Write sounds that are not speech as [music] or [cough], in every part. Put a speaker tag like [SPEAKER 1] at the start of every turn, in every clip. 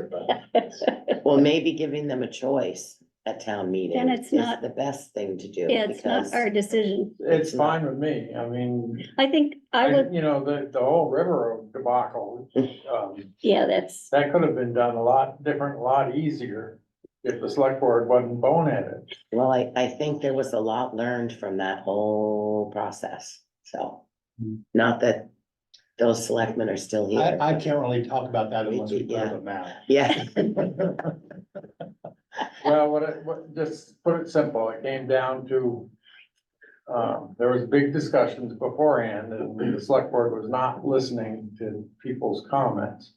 [SPEAKER 1] [laughs]
[SPEAKER 2] Well, maybe giving them a choice at town meeting
[SPEAKER 1] Then it's
[SPEAKER 2] is
[SPEAKER 1] not-
[SPEAKER 2] the best thing to do.
[SPEAKER 1] Yeah, it's
[SPEAKER 2] because-
[SPEAKER 1] not our decision.
[SPEAKER 3] It's fine with me, I mean,
[SPEAKER 1] I think I
[SPEAKER 3] I,
[SPEAKER 1] would,
[SPEAKER 3] you know, the, the whole river debacle, um, [laughs]
[SPEAKER 1] yeah, that's,
[SPEAKER 3] that could have been done a lot different, a lot easier if the select board wasn't boneheaded.
[SPEAKER 2] Well, I, I think there was a lot learned from that whole process, so.
[SPEAKER 4] Hmm.
[SPEAKER 2] Not that those selectmen are still
[SPEAKER 4] I,
[SPEAKER 2] here.
[SPEAKER 4] I can't really talk about that
[SPEAKER 2] We
[SPEAKER 4] unless we
[SPEAKER 2] do,
[SPEAKER 4] put up
[SPEAKER 2] yeah.
[SPEAKER 4] a map.
[SPEAKER 2] Yeah,
[SPEAKER 3] Well, what, it- what, just put it simple, it came down to, um, there was big discussions beforehand, and the select board was not listening to people's comments.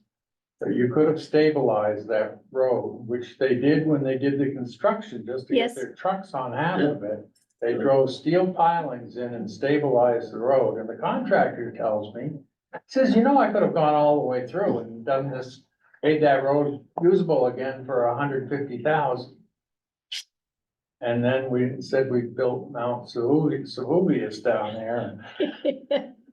[SPEAKER 3] So you could have stabilized that road, which they did when they did the construction, just to
[SPEAKER 1] Yes.
[SPEAKER 3] get their trucks on half of it. They drove steel pilings in and stabilized the road, and the contractor tells me, says, you know, I could have gone all the way through and done this, made that road usable again for hundred fifty thousand. And then we said we built Mount Sahubi, Sahubius down there.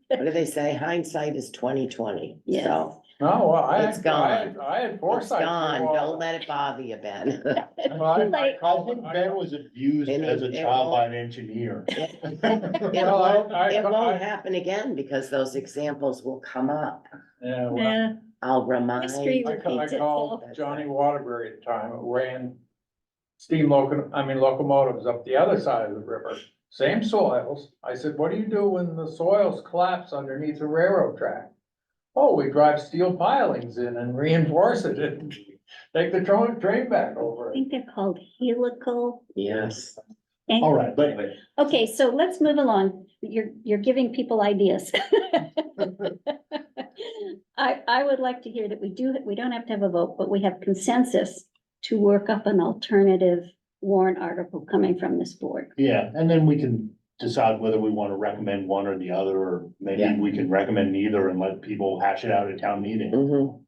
[SPEAKER 2] what do they say? Hindsight is twenty twenty,
[SPEAKER 1] Yes.
[SPEAKER 2] so.
[SPEAKER 3] No, well, I,
[SPEAKER 2] It's
[SPEAKER 3] had- I, had-
[SPEAKER 2] gone.
[SPEAKER 3] I had
[SPEAKER 2] It's
[SPEAKER 3] foresight.
[SPEAKER 2] gone, don't let it bother you, Ben.
[SPEAKER 3] [laughs] Well, I- I
[SPEAKER 1] Like-
[SPEAKER 4] I
[SPEAKER 3] called-
[SPEAKER 4] think
[SPEAKER 3] I-
[SPEAKER 4] Ben was abused
[SPEAKER 2] It
[SPEAKER 4] as a
[SPEAKER 2] is- it
[SPEAKER 4] child by
[SPEAKER 2] won't-
[SPEAKER 4] an engineer.
[SPEAKER 2] It
[SPEAKER 3] Well, I-
[SPEAKER 2] won't,
[SPEAKER 3] I-
[SPEAKER 2] it
[SPEAKER 3] I-
[SPEAKER 2] won't happen again because those examples will come up.
[SPEAKER 3] Yeah, well,
[SPEAKER 1] yeah,
[SPEAKER 2] I'll remind.
[SPEAKER 1] History
[SPEAKER 3] I ca- I
[SPEAKER 1] Repeats
[SPEAKER 3] called
[SPEAKER 2] itself.
[SPEAKER 3] Johnny Waterbury at the time, who ran steam loco, I mean locomotives up the other side of the river, same soils. I said, what do you do when the soils collapse underneath the railroad track? Oh, we drive steel pilings in and reinforce it and [laughs] take the train, train back
[SPEAKER 1] I
[SPEAKER 3] over it.
[SPEAKER 1] think they're called helical.
[SPEAKER 2] Yes,
[SPEAKER 1] ang-
[SPEAKER 4] [laughs] All right, but
[SPEAKER 1] Okay, so let's move along. You're, you're giving people ideas. I, I would like to hear that we do, we don't have to have a vote, but we have consensus to work up an alternative warrant article coming from this board.
[SPEAKER 4] yeah, and then we can decide whether we want to recommend one or the other, or maybe
[SPEAKER 2] Yeah.
[SPEAKER 4] we can recommend neither and let people hash it out at town meeting.
[SPEAKER 2] mhm.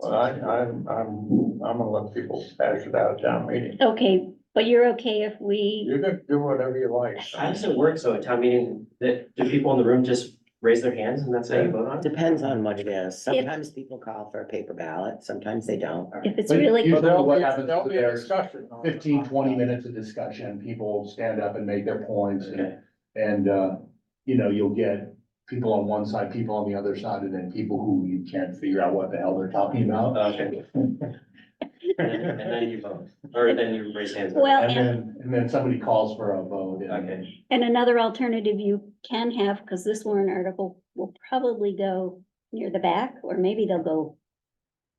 [SPEAKER 3] Well, I, I'm, I'm, I'm gonna let people hash it out at town meeting.
[SPEAKER 1] Okay, but you're okay if we,
[SPEAKER 3] You can do whatever you like.
[SPEAKER 5] How does it work? So at town meeting, that, do people in the room just raise their hands and that's how you vote on it?
[SPEAKER 2] Depends on what it is. Sometimes people call for a paper ballot, sometimes they don't.
[SPEAKER 1] if it's
[SPEAKER 4] But
[SPEAKER 1] really,
[SPEAKER 4] you-
[SPEAKER 3] So there'll
[SPEAKER 4] what
[SPEAKER 3] be,
[SPEAKER 4] happens
[SPEAKER 3] there'll
[SPEAKER 4] to
[SPEAKER 3] be a
[SPEAKER 4] theirs?
[SPEAKER 3] discussion. on it.
[SPEAKER 4] 15, 20 minutes of discussion, people stand up and make their points and,
[SPEAKER 5] Okay,
[SPEAKER 4] and, uh, you know, you'll get people on one side, people on the other side, and then people who you can't figure out what the hell they're talking about.
[SPEAKER 5] Oh, okay. And and then you vote, or then you raise hands.
[SPEAKER 1] well,
[SPEAKER 4] And
[SPEAKER 1] and,
[SPEAKER 4] then, and then somebody calls for a vote. and-
[SPEAKER 5] Okay,
[SPEAKER 1] and another alternative you can have, because this warrant article will probably go near the back, or maybe they'll go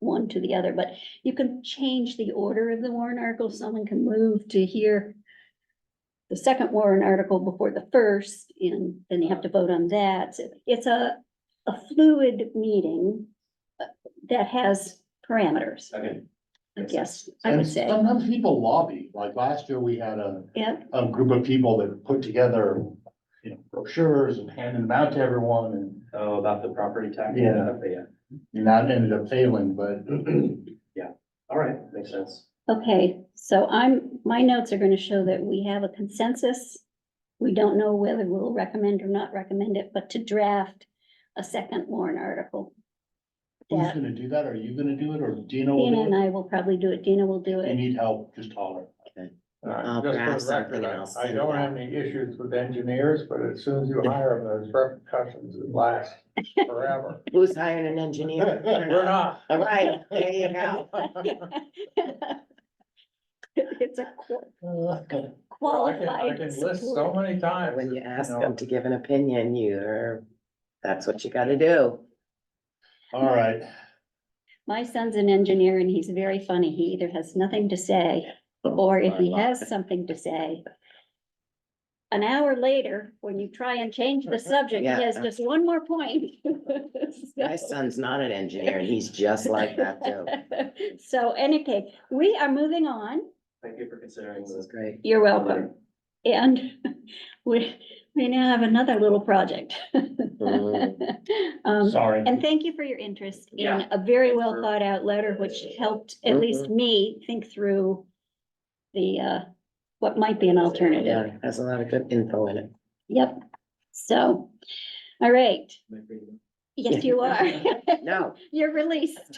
[SPEAKER 1] one to the other, but you can change the order of the warrant article. Someone can move to hear the second warrant article before the first, and then you have to vote on that. It's a, a fluid meeting uh, that has parameters,
[SPEAKER 5] okay.
[SPEAKER 1] I guess, I
[SPEAKER 4] And
[SPEAKER 1] would say.
[SPEAKER 4] sometimes people lobby, like last year, we had a,
[SPEAKER 1] Yeah,
[SPEAKER 4] a group of people that put together, you know, brochures and handed them out to everyone, and,
[SPEAKER 5] Oh, about the property tax?
[SPEAKER 4] Yeah.
[SPEAKER 5] Okay, yeah. [clears throat]
[SPEAKER 4] and that ended up failing, but
[SPEAKER 5] Yeah, all right, makes sense.
[SPEAKER 1] Okay, so I'm, my notes are gonna show that we have a consensus. We don't know whether we'll recommend or not recommend it, but to draft a second warrant article.
[SPEAKER 4] who's
[SPEAKER 1] Yeah.
[SPEAKER 4] gonna do that? Are you gonna do it, or Dina will
[SPEAKER 1] Dina
[SPEAKER 4] do
[SPEAKER 1] and
[SPEAKER 4] it?
[SPEAKER 1] I will probably do it. Dina will do
[SPEAKER 4] If You
[SPEAKER 1] it.
[SPEAKER 4] need help, just holler.
[SPEAKER 3] All right,
[SPEAKER 2] I'll
[SPEAKER 3] just for the
[SPEAKER 2] draft something
[SPEAKER 3] record, I-
[SPEAKER 2] else
[SPEAKER 3] I
[SPEAKER 2] to
[SPEAKER 3] don't
[SPEAKER 2] that.
[SPEAKER 3] have any issues with engineers, but as soon as you hire them, those repercussions that last
[SPEAKER 2] [laughs]
[SPEAKER 3] forever.
[SPEAKER 2] Who's hiring an engineer?
[SPEAKER 3] [laughs] We're not.
[SPEAKER 2] All right, there you go.
[SPEAKER 1] [laughs] It's a qu-
[SPEAKER 3] Uh,
[SPEAKER 4] Well,
[SPEAKER 3] I can, I
[SPEAKER 1] qualified
[SPEAKER 3] can list so
[SPEAKER 1] support.
[SPEAKER 3] many times.
[SPEAKER 2] When you
[SPEAKER 3] that,
[SPEAKER 2] ask
[SPEAKER 3] know,
[SPEAKER 2] them to give an opinion, you're, that's what you gotta do.
[SPEAKER 4] All right,
[SPEAKER 1] My son's an engineer and he's very funny. He either has nothing to say Or if he has something to say. An hour later, when you try and change the subject, he has
[SPEAKER 2] Yeah.
[SPEAKER 1] just one more point. [laughs]
[SPEAKER 2] My son's not an engineer and he's just like that
[SPEAKER 1] [laughs]
[SPEAKER 2] too.
[SPEAKER 1] So any case, we are moving on.
[SPEAKER 5] Thank you for considering
[SPEAKER 2] This is
[SPEAKER 5] this.
[SPEAKER 2] great.
[SPEAKER 1] You're welcome. And [laughs] we, we now have another little project. [laughs]
[SPEAKER 2] Mm-hmm.
[SPEAKER 1] Um,
[SPEAKER 4] sorry.
[SPEAKER 1] and thank you for your interest in
[SPEAKER 5] Yeah.
[SPEAKER 1] a very
[SPEAKER 5] Thanks
[SPEAKER 1] well
[SPEAKER 5] for- Mm-hmm.
[SPEAKER 1] thought out letter, which helped at least me think through the, uh, what might be an alternative.
[SPEAKER 2] Yeah, it has a lot of good info in it.
[SPEAKER 1] Yep. So, all right.
[SPEAKER 5] Am I free to go?
[SPEAKER 1] Yes, you are. [laughs]
[SPEAKER 2] No,
[SPEAKER 1] You're released.